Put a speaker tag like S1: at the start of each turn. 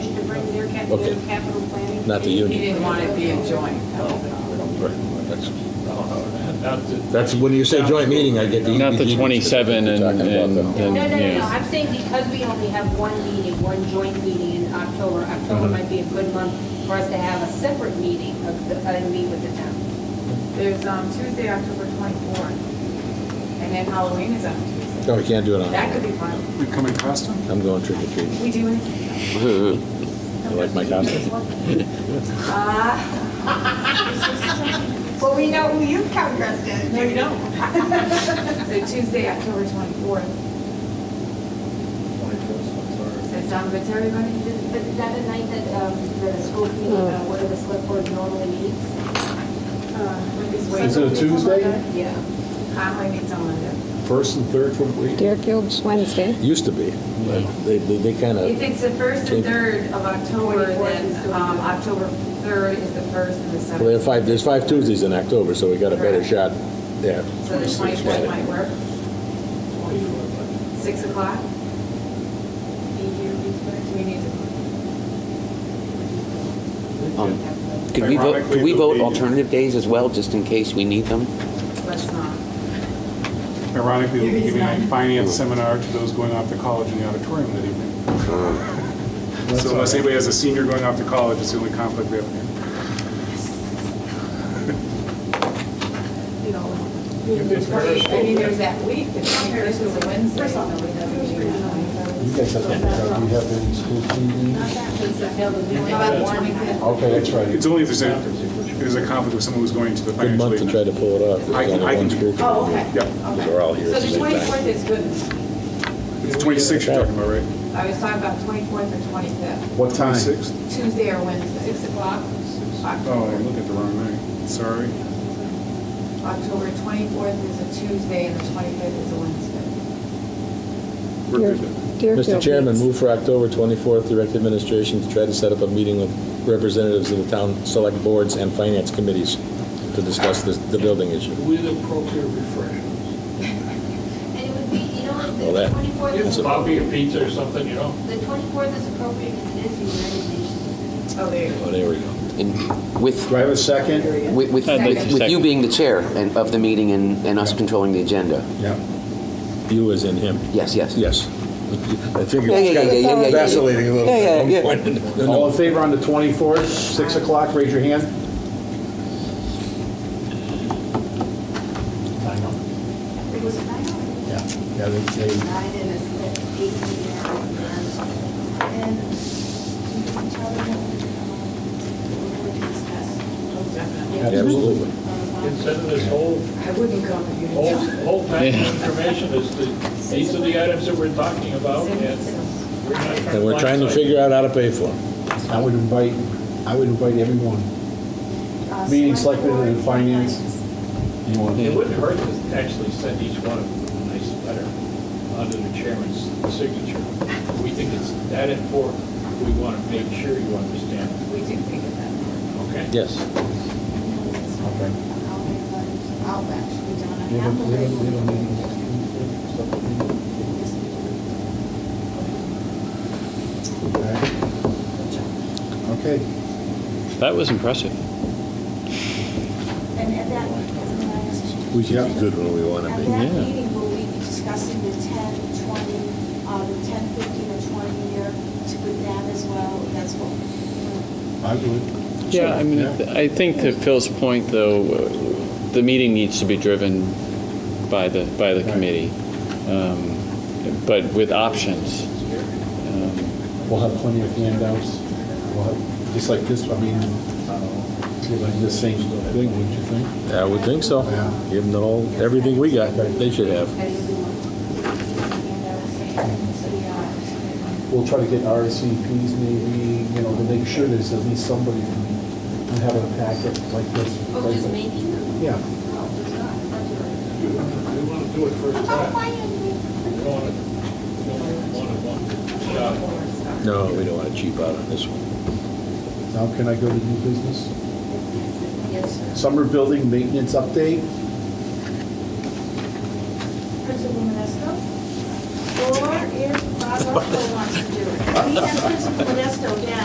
S1: Okay.
S2: with capital planning.
S1: Not the
S2: He-
S1: union.
S2: He didn't want it be a joint.
S1: Right, that's-
S3: That's-
S1: That's, when you say joint meeting, I get the.
S4: Not the
S1: EBD.
S4: 27 and-
S1: Talking about
S4: and-
S1: the-
S4: and-
S5: No, no, no, no,
S4: Yeah.
S5: I'm saying because we only have one meeting, one joint meeting in October, October might be a good month for us to have a separate meeting of the, uh, meet with the town.
S2: There's um, Tuesday, October 24th, and then Halloween is on Tuesday.
S1: No, we can't do it
S2: That could
S1: on,
S2: be fun.
S3: We come in costume?
S1: I'm going trick or treating.
S2: We do it.
S1: I like my costume.
S2: Uh,
S5: Well, we know who you come dressed as.
S2: No, you don't. So Tuesday, October 24th. Does that sound good to everybody?
S5: But is that a night that, um, the school committee, uh,
S6: Mm.
S5: what are the select board normally meets?
S2: Is
S6: it a Tuesday?
S5: Yeah.
S2: Conway meets on Monday.
S6: First and third from week.
S7: Deerfield's Wednesday.
S1: Used to be. They, they, they kind
S2: If
S1: of,
S2: it's the first and third of October,
S5: 24th is
S2: then
S5: the-
S2: um, October 3rd is the first and the
S1: well, there are
S2: seventh.
S1: five, there's five Tuesdays in October, so we got a better shot there.
S2: So the 24th might work. 6 o'clock? Be here, be there. Do we need
S8: Um,
S2: to?
S8: Could we vote, could
S6: Ironically,
S8: we
S6: it'll
S8: vote
S6: be-
S8: alternative days as well, just in case we need them?
S2: Let's not.
S3: Ironically, we'll be giving a finance seminar to those going off to college in the auditorium that evening. So unless anybody has a senior going off to college, it's the only conflict we have here.
S2: you know, I mean, there's that week, the 21st is a Wednesday. so we don't do that.
S6: You guys have, do you have any school meetings?
S2: About the 25th.
S6: Okay, that's
S3: It's
S6: right.
S3: only if there's a, if there's a conflict with someone who's going to the
S1: Good
S3: financial
S1: month to try
S3: aid.
S1: to pull it off.
S3: I can-
S1: There's
S3: I
S1: only one
S3: can-
S1: school.
S2: Oh, okay.
S3: Yeah.
S2: Okay.
S1: They're all here
S2: So
S1: at
S2: the
S1: the same
S2: 24th
S1: time.
S2: is good.
S3: It's 26 you're talking about, right?
S2: I was talking about 24th or 25th,
S6: What time?
S3: 26?
S2: Tuesday or Wednesday, 6 o'clock,
S3: Oh, I'm
S2: October.
S3: looking at the wrong night. Sorry.
S2: October 24th is a Tuesday and the 25th is a Wednesday.
S3: We're
S7: Deer-
S3: good then.
S1: Mr.
S7: Deerfield
S1: Chairman,
S7: meets-
S1: move for October 24th, direct administration to try to set up a meeting with representatives of the town select boards and finance committees to discuss this, the building issue.
S6: With appropriate refreshments.
S5: And it would be, you
S1: Well,
S5: know,
S1: that-
S5: the twenty-fourth is,
S1: Oh,
S6: a coffee or pizza or something, you know?
S5: the twenty-fourth is appropriate because it is the United Nations.
S2: Oh, there you go.
S1: Oh, there we go.
S8: And with,
S6: Do I have a second?
S8: with, with
S4: I'd like
S8: with you
S4: second.
S8: being the chair and- of the meeting and, and us controlling the agenda.
S6: Yeah.
S1: You as in him.
S8: Yes, yes.
S1: Yes. I think
S8: Yeah, yeah,
S1: it's
S8: yeah, yeah, yeah,
S1: kind
S8: yeah, yeah.
S1: of vacillating a little
S8: Yeah,
S1: bit.
S8: yeah,
S1: at one
S8: yeah.
S1: point. No, no.
S6: All in favor on the 24th, 6 o'clock, raise your hand.
S5: It was nine,
S6: Yeah, yeah, they, they-
S5: nine and it's eighteen hours.
S9: And you can tell them what we're going to discuss.
S1: Absolutely.
S9: Consider this whole,
S2: I wouldn't come if you
S9: whole,
S2: didn't
S9: whole pack of information is the, these are the items that we're talking about, and we're not
S1: And we're trying to figure out how to pay for them.
S6: I would invite, I would invite everyone.
S9: out.
S5: Um,
S6: Meeting selected in finance. You want
S9: It wouldn't hurt to actually send each one of them a nice letter under the chairman's signature. We think it's that important, we want to make sure you understand,
S2: We do think of that.
S9: okay?
S1: Yes.
S6: Okay.
S9: I'll actually
S6: We have a- we have a- we have a meeting. Okay.
S4: That was impressive.
S9: And at that, everyone has to.
S1: We should be good when we want to
S9: At
S1: be.
S9: that
S4: Yeah.
S9: meeting, will we be discussing the 10, 20, uh, the 10, 15, or 20 year to with them as well? That's what,
S6: I would.
S4: Yeah, I mean,
S6: Yeah.
S4: I think to Phil's point, though, uh, the meeting needs to be driven by the, by the
S6: Right.
S4: committee, um, but with options. Um,
S6: We'll have plenty of handouts. We'll have, just like this, I mean, uh, give them the same thing, wouldn't you think?
S1: I would think so.
S6: Yeah.
S1: Give them the whole, everything we got, they should have.
S6: We'll try to get RSVPs maybe, you know, to make sure there's at least somebody from, we have a packet like this.
S5: Oh, just making them?
S6: Yeah.
S5: No, it's not. That's
S9: we want to do it first
S5: all right.
S9: time. Oh, We want to, we want to, want to, yeah.
S1: No, we don't want to cheap out on this one.
S6: Now can I go to new business?
S5: Yes, sir.
S6: Summer building maintenance update?
S9: Principal Modesto? Or if Bob Russell wants to do it? We have Principal Modesto down.